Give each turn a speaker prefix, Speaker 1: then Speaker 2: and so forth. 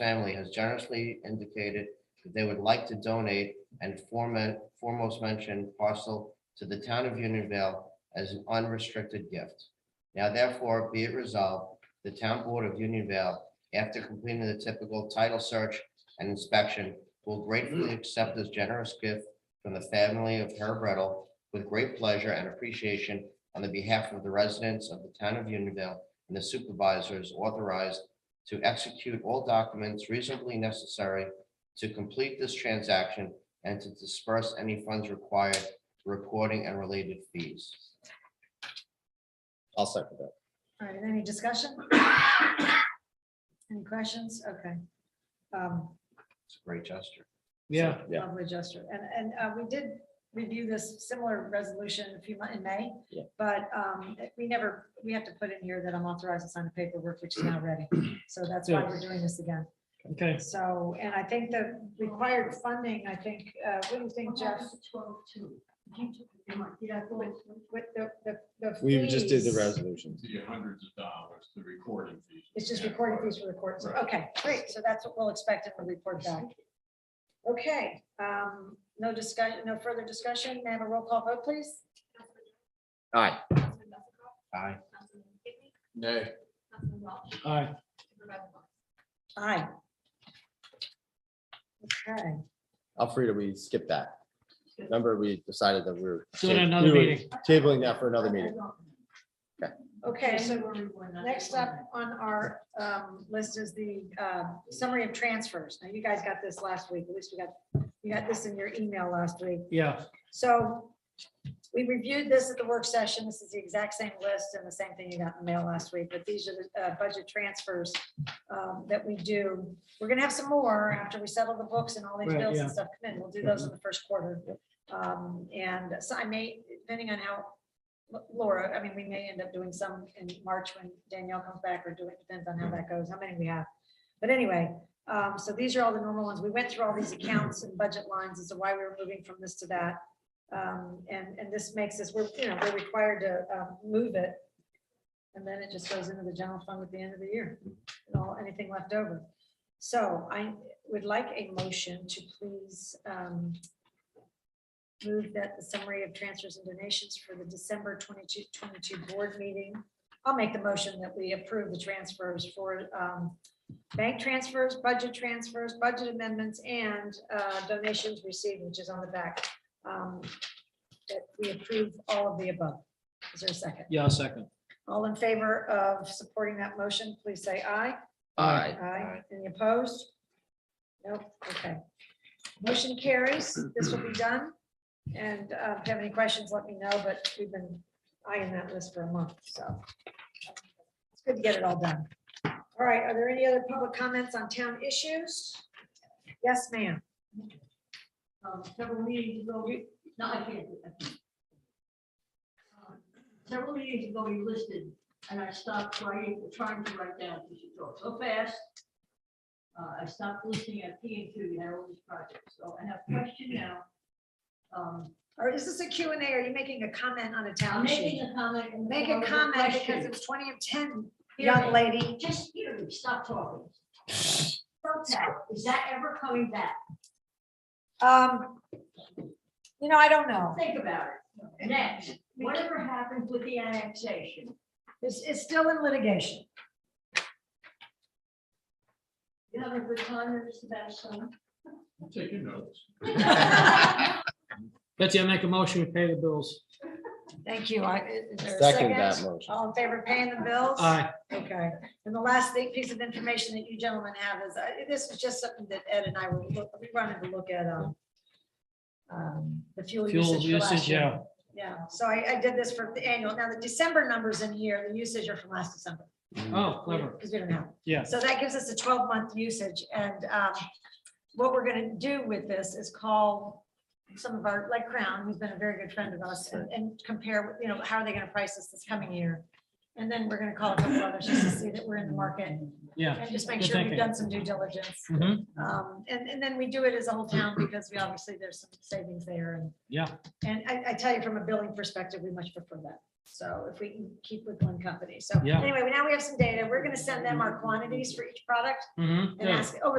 Speaker 1: family has generously indicated that they would like to donate and forma- foremost mentioned parcel to the town of Unionville as an unrestricted gift. Now therefore be it resolved, the town board of Unionville, after completing the typical title search and inspection, will gratefully accept this generous gift from the family of Herb Riddle with great pleasure and appreciation on the behalf of the residents of the town of Unionville and the supervisors authorized to execute all documents reasonably necessary to complete this transaction and to disperse any funds required for reporting and related fees.
Speaker 2: I'll second that.
Speaker 3: All right, any discussion? Any questions? Okay. Um,
Speaker 1: It's a great gesture.
Speaker 4: Yeah,
Speaker 2: Yeah.
Speaker 3: Lovely gesture. And, and uh, we did review this similar resolution a few months in May.
Speaker 2: Yeah.
Speaker 3: But um, we never, we have to put in here that I'm authorized to sign the paperwork, which is now ready. So that's why we're doing this again.
Speaker 4: okay.
Speaker 3: So, and I think the required funding, I think, uh, what do you think, Jeff? With the, the, the.
Speaker 2: We just did the
Speaker 3: fees,
Speaker 2: resolutions.
Speaker 5: the hundreds of dollars, the recording fees.
Speaker 3: It's just recording fees for the courts.
Speaker 5: Right.
Speaker 3: Okay, great. So that's what we'll expect and we'll report back. Okay, um, no discussion, no further discussion. May I have a roll call vote, please?
Speaker 2: Aye.
Speaker 1: Aye.
Speaker 5: Nay.
Speaker 4: All right.
Speaker 3: Aye. Okay,
Speaker 2: Alfreda, we skipped that. Remember, we decided that we were.
Speaker 4: Do it another
Speaker 2: we were
Speaker 4: meeting.
Speaker 2: Tabling that for another meeting.
Speaker 3: okay, so next up on our um, list is the uh, summary of transfers. Now, you guys got this last week, at least we got, you got this in your email last week.
Speaker 4: Yeah,
Speaker 3: So we reviewed this at the work session. This is the exact same list and the same thing you got in the mail last week, but these are the uh, budget transfers um, that we do. We're gonna have some more after we settle the books and all these
Speaker 4: Right,
Speaker 3: bills and
Speaker 4: yeah. Mm-hmm.
Speaker 3: stuff come in. We'll do those in the first quarter. Um, And so I may, depending on how, Laura, I mean, we may end up doing some in March when Danielle comes back or do it, depends on how that goes, how many we have. But anyway, um, so these are all the normal ones. We went through all these accounts and budget lines as to why we were moving from this to that. Um, and, and this makes us, we're, you know, we're required to, um, move it. And then it just goes into the general fund at the end of the year, and all, anything left over. So I would like a motion to please, um, move that the summary of transfers and donations for the December 22, 22 board meeting. I'll make the motion that we approve the transfers for, um, bank transfers, budget transfers, budget amendments, and, uh, donations received, which is on the back um, that we approve all of the above. Is there a second?
Speaker 4: yeah, I'll second.
Speaker 3: All in favor of supporting that motion, please say aye.
Speaker 2: Aye.
Speaker 3: Aye. Any opposed? Nope, okay. Motion carries. This will be done. And uh, if you have any questions, let me know, but we've been eyeing that list for a month, so. It's good to get it all done. All right, are there any other public comments on town issues? Yes, ma'am.
Speaker 6: um, several meetings ago, we- no, I can't. do that. Um, Several meetings ago, we listed, and I stopped writing, trying to write down, because you talk so fast. Uh, I stopped listening at P and Q, you had all these projects, so I have a question now. Um,
Speaker 3: Or is this a Q and A? Are you making a comment on a
Speaker 6: I'm
Speaker 3: town issue?
Speaker 6: making a comment. in the
Speaker 3: Make
Speaker 6: form
Speaker 3: a
Speaker 6: of
Speaker 3: comment because
Speaker 6: question.
Speaker 3: it was twenty of ten,
Speaker 6: Hear
Speaker 3: young
Speaker 6: me.
Speaker 3: lady.
Speaker 6: Just hear me, stop talking. Protac, is that ever coming back?
Speaker 3: Um, you know, I don't know.
Speaker 6: Think about it. Next, whatever happened with the annexation?
Speaker 3: It's, it's still in litigation.
Speaker 6: You having a good time, there, Mr. Bassler?
Speaker 5: I'm taking notes.
Speaker 4: Betsy, I make a motion to pay the bills.
Speaker 3: Thank you. I, is there a
Speaker 2: Second that
Speaker 3: second?
Speaker 2: motion.
Speaker 3: All in favor of paying the bills?
Speaker 4: Aye,
Speaker 3: Okay. And the last thing, piece of information that you gentlemen have is, uh, this is just something that Ed and I were, look- we wanted to look at, um, um, the fuel
Speaker 4: fuel
Speaker 3: usage for last
Speaker 4: usage,
Speaker 3: year.
Speaker 4: yeah.
Speaker 3: Yeah, so I, I did this for the annual. Now, the December numbers in here, the usage are from last December.
Speaker 4: Oh, clever,
Speaker 3: Because we don't have.
Speaker 4: yeah.
Speaker 3: So that gives us a twelve month usage and um, what we're gonna do with this is call some of our, like Crown, who's been a very good friend of us and- and compare, you know, how are they gonna price us this coming year? And then we're gonna call a couple others just to see that we're in the market
Speaker 4: Yeah.
Speaker 3: and just make
Speaker 4: Good
Speaker 3: sure we've
Speaker 4: thinking.
Speaker 3: done some due diligence.
Speaker 4: Mhm.
Speaker 3: Um, and, and then we do it as a whole town because we obviously there's some savings there and
Speaker 4: Yeah,
Speaker 3: and I, I tell you from a billing perspective, we much prefer that. So if we can keep with one company. So
Speaker 4: Yeah.
Speaker 3: anyway, now we have some data. We're going to send them our quantities for each product
Speaker 4: Mhm,
Speaker 3: and
Speaker 4: yeah.
Speaker 3: ask over the